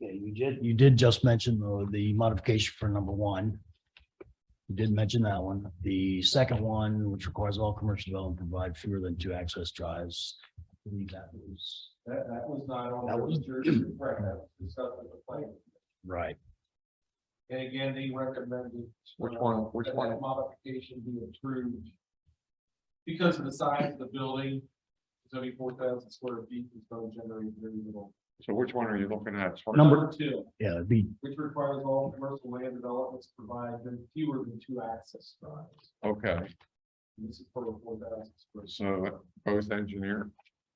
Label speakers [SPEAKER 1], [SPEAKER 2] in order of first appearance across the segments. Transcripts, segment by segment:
[SPEAKER 1] Yeah, you did, you did just mention the, the modification for number one. You did mention that one. The second one, which requires all commercial development to provide fewer than two access drives. I believe That was,
[SPEAKER 2] That, that was not on
[SPEAKER 1] That was-
[SPEAKER 2] the jurisdiction, right, that was discussed with the planning.
[SPEAKER 1] right,
[SPEAKER 2] And again, they recommended.
[SPEAKER 3] Which one,
[SPEAKER 2] uh,
[SPEAKER 3] which
[SPEAKER 2] that
[SPEAKER 3] one?
[SPEAKER 2] that Modification be approved. Because of the size of the building, it's only four thousand square feet, it's going to generate very little.
[SPEAKER 3] So which one are you looking at?
[SPEAKER 1] Number-
[SPEAKER 2] Two,
[SPEAKER 1] yeah, it'd be,
[SPEAKER 2] which requires all commercial land developments to provide no fewer than two access drives.
[SPEAKER 3] Okay,
[SPEAKER 2] And This is for four thousand square. feet.
[SPEAKER 3] so both engineer,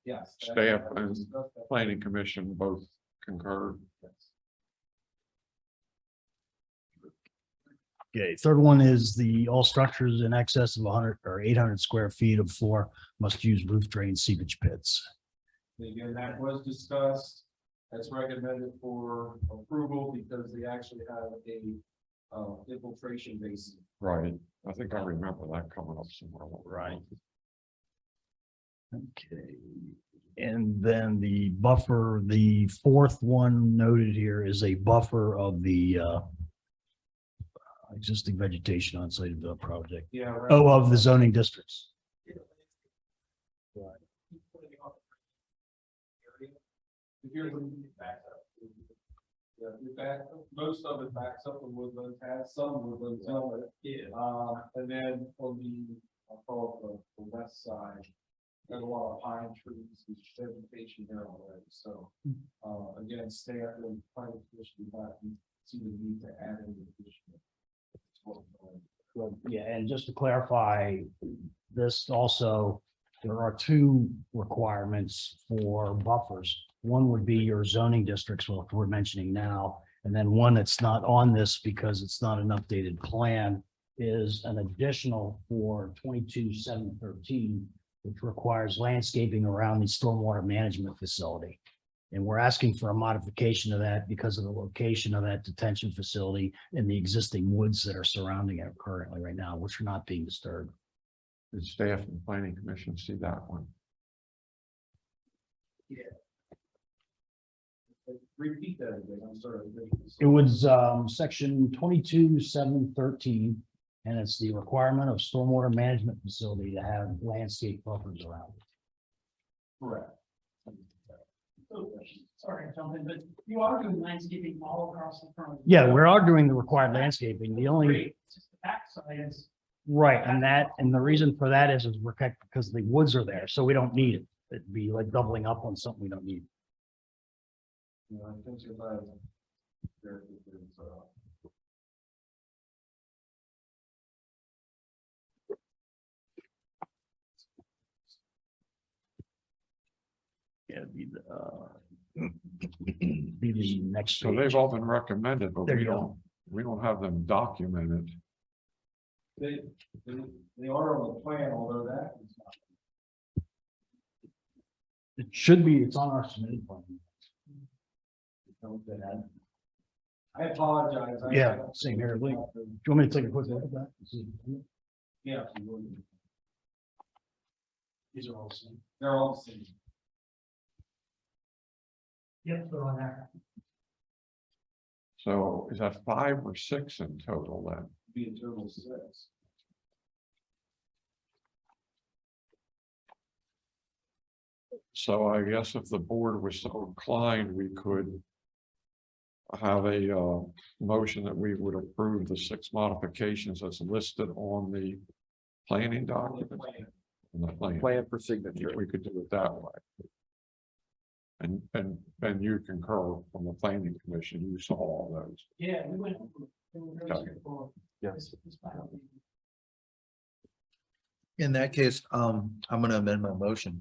[SPEAKER 2] Yes. that-
[SPEAKER 3] Staff
[SPEAKER 2] that was
[SPEAKER 3] and-
[SPEAKER 2] discussed, that-
[SPEAKER 3] planning commission both concur.
[SPEAKER 2] yes.
[SPEAKER 1] okay, third one is the all structures in excess of hundred or eight hundred square feet of floor must use roof drain seepage pits.
[SPEAKER 2] And Again, that was discussed, that's recommended for approval because they actually have a uh infiltration basin.
[SPEAKER 3] Right. I think I remember that coming up somewhere.
[SPEAKER 1] Right. Okay, and then the buffer, the fourth one noted here is a buffer of the uh. Existing vegetation on site of the project,
[SPEAKER 2] Yeah. right.
[SPEAKER 1] oh, of the zoning districts.
[SPEAKER 2] If you're looking back up. Yeah, you back, most of it backs up in woodland, has some woodland, some of it. Yeah. Uh, and then on the, I'll call it the, the west side, there's a lot of pine trees, and vegetation there already, so. Uh, again, stay out there, find a position, but you see the need to add in the addition.
[SPEAKER 1] Well, yeah, and just to clarify, this also, there are two requirements for buffers. One would be your zoning districts, well, we're mentioning now, and then one that's not on this because it's not an updated plan is an additional for twenty-two seven thirteen, which requires landscaping around the stormwater management facility. And we're asking for a modification of that because of the location of that detention facility and the existing woods that are surrounding it currently right now, which are not being disturbed.
[SPEAKER 3] Did staff and planning commission see that one?
[SPEAKER 2] Repeat that again, I'm sorry.
[SPEAKER 1] It was um section twenty-two, seven thirteen, and it's the requirement of stormwater management facility to have landscape buffers around. it.
[SPEAKER 2] Correct.
[SPEAKER 4] Sorry, I jumped in, but you are doing landscaping all across the front.
[SPEAKER 1] Yeah, we're arguing the required landscaping. The only,
[SPEAKER 4] Great, it's just the backside is,
[SPEAKER 1] right, and that, and the reason for that is is we're protect- because the woods are there, so we don't need it. It'd be like doubling up on something we don't need.
[SPEAKER 2] You know, I think you're right. There it is, uh,
[SPEAKER 1] Yeah, be the uh, be the next.
[SPEAKER 3] So they've all been recommended, but
[SPEAKER 1] There
[SPEAKER 3] we
[SPEAKER 1] you go.
[SPEAKER 3] don't, we don't have them documented.
[SPEAKER 2] They, they, they are on the plan, although that is not.
[SPEAKER 1] It should be, it's on our submitted plan. Don't get that. Do
[SPEAKER 2] I apologize. I-
[SPEAKER 1] Yeah, same here, Lee. you want me to take a quick look at that?
[SPEAKER 2] Yeah. if you would.
[SPEAKER 1] These are all the same.
[SPEAKER 2] They're all the same.
[SPEAKER 4] yep, they're on there.
[SPEAKER 3] So is that five or six in total then?
[SPEAKER 2] Be a total of six.
[SPEAKER 3] So I guess if the board was so inclined, we could have a uh motion that we would approve the six modifications as listed on the planning
[SPEAKER 2] on the
[SPEAKER 3] document.
[SPEAKER 2] plan.
[SPEAKER 3] on the plan.
[SPEAKER 5] plan for signature.
[SPEAKER 3] We could do it that way. And and and you concur from the planning commission, you saw all those.
[SPEAKER 4] Yeah, we went. over it. They were very
[SPEAKER 3] Okay.
[SPEAKER 4] straightforward.
[SPEAKER 5] Yeah.
[SPEAKER 4] This- this final thing.
[SPEAKER 6] In that case, um, I'm gonna amend my motion.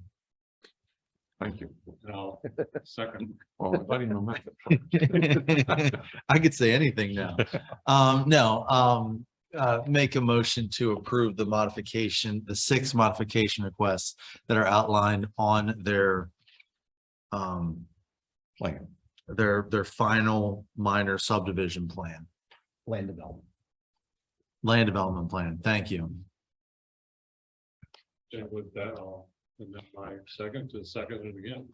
[SPEAKER 3] Thank you.
[SPEAKER 1] No.
[SPEAKER 3] Second. Well, let him amend it.
[SPEAKER 6] I could say anything now. Um, no, um, uh, make a motion to approve the modification, the six modification requests that are outlined on their um,
[SPEAKER 3] Plan.
[SPEAKER 6] their, their final minor subdivision plan,
[SPEAKER 1] Land development.
[SPEAKER 6] land development plan. Thank you.
[SPEAKER 3] And with that, I'll amend my second to second it again.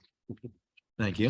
[SPEAKER 6] Thank you.